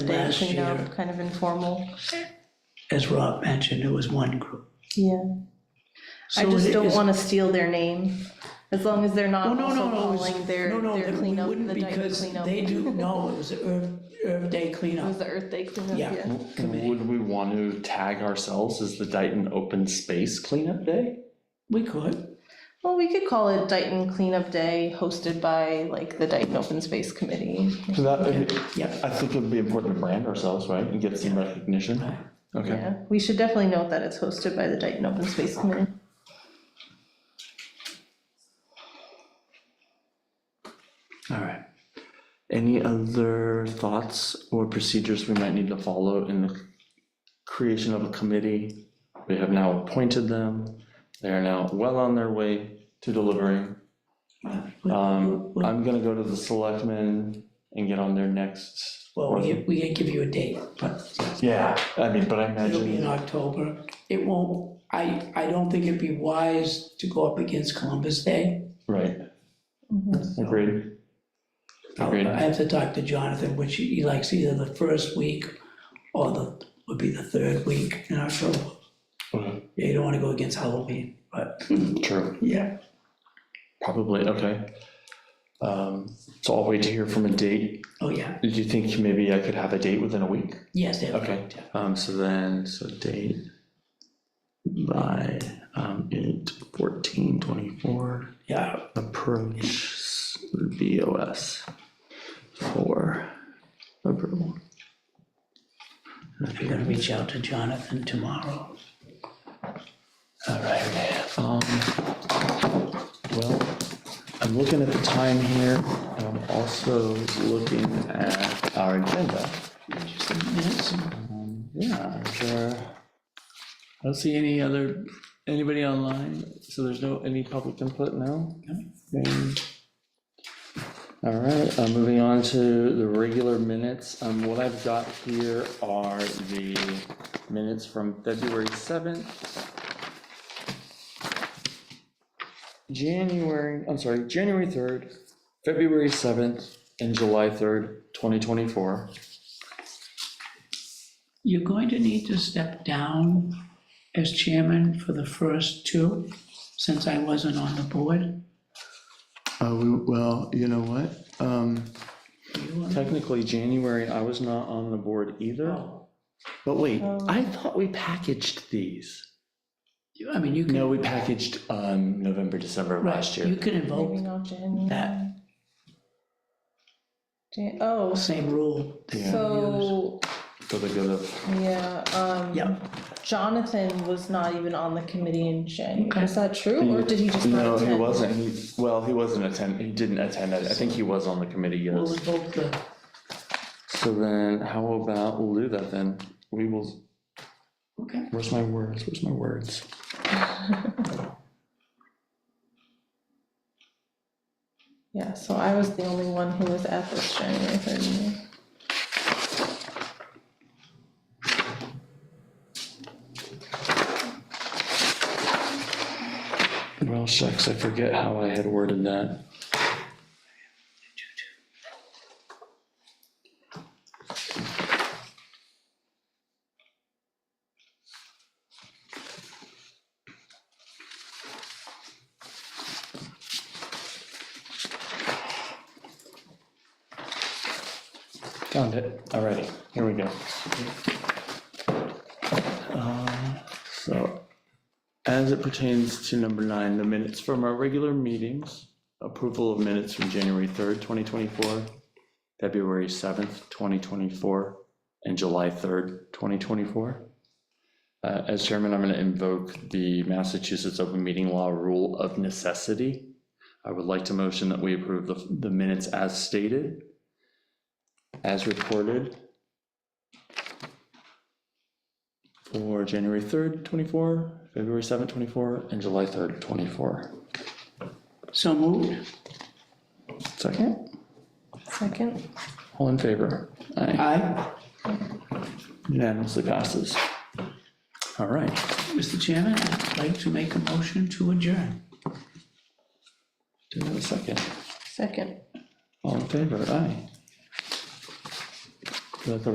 last things, you know, year. kind of informal. As Rob mentioned, it was one group. Yeah, I So just it don't is- want to steal their name, as long as they're Oh, not no, also no, no, it's- calling their, no, no, their we cleanup, wouldn't the diaper because cleanup. They It do, no, it was the Earth, Earth Day was cleanup, the Earth Day cleanup, Yeah. yeah. committee. Would we want to tag ourselves as the Dayton Open Space Cleanup Day? We could, Well, we could call it Dayton Cleanup Day, hosted by like the Dayton Open Space Committee. So that, yeah. I think it would be important to brand ourselves, right, and give some recognition. Right. Okay. Yeah, we should definitely note that it's hosted by the Dayton Open Space Committee. All right. Any other thoughts or procedures we might need to follow in the creation of a committee? We have now appointed them. They are now well on their way to delivering. Um, Well, I'm gonna go to the selectmen and get on their next. Well, we can, we can give you a date, but Yeah, I mean, but I it'll be in imagine, October. It won't, I, I don't think it'd be wise to go up against Columbus Day. right, Mm-hmm. agreed. Agreed. I have to talk to Jonathan, which he likes either the first week or the, would be the third week in October. Mhm. Yeah, you don't wanna go against Halloween, but, True, yeah, probably, okay. Um, so I'll wait to hear from a date. oh, yeah, Do you think maybe I could have a date within a week? yes, they have- Okay, um, so then, so date by, um, it fourteen twenty-four, Yeah, approach BOS for approval. I'm gonna reach out to Jonathan tomorrow. All right. Um, well, I'm looking at the time here, and I'm also looking at our agenda. Just a minute. Um, Yeah, there, I don't see any other, anybody online, so there's no, any public input now? Okay. All right, uh, moving on to the regular minutes, um, what I've got here are the minutes from February seventh. January, I'm sorry, January third, February seventh, and July third, twenty twenty-four. You're going to need to step down as chairman for the first two, since I wasn't on the board. Uh, we, well, you know what, um. Technically, January, I was not on the board either, Oh, but wait, Oh. I thought we packaged these. you- I mean, you can. No, we packaged, um, November, December of right, last You year. can Maybe invoke not January. Oh, that. Jan, oh, the same rule. that you Yeah. so, For the good of, yeah, um. Yeah. Jonathan was not even on the committee in January, Okay. is that true, or did he just not no, attend? he wasn't, he, well, he wasn't attend, he didn't attend, I I think he was on the committee, use. We'll yes. invoke the, So then, how about, we'll do that then, we will, okay, where's my words, where's my words? Yeah, so I was the only one who was at this January third meeting. Well, shucks, I forget how I had worded that. Found it, alrighty, here we go. Um, So as it pertains to number nine, the minutes from our regular meetings, approval of minutes from January 3rd, 2024, February 7th, 2024, and July 3rd, 2024. Uh, As chairman, I'm going to invoke the Massachusetts Open Meeting Law Rule of Necessity. I would like to motion that we approve the the minutes as stated, as reported, for January 3rd, 24, February 7th, 24, and July 3rd, 24. so moved, Second, Second, all in favor? Aye. aye, Unanimously passes. All right, Mr. Chairman, I'd like to make a motion to adjourn. do we have a second? second. All in favor? Aye. Do I have a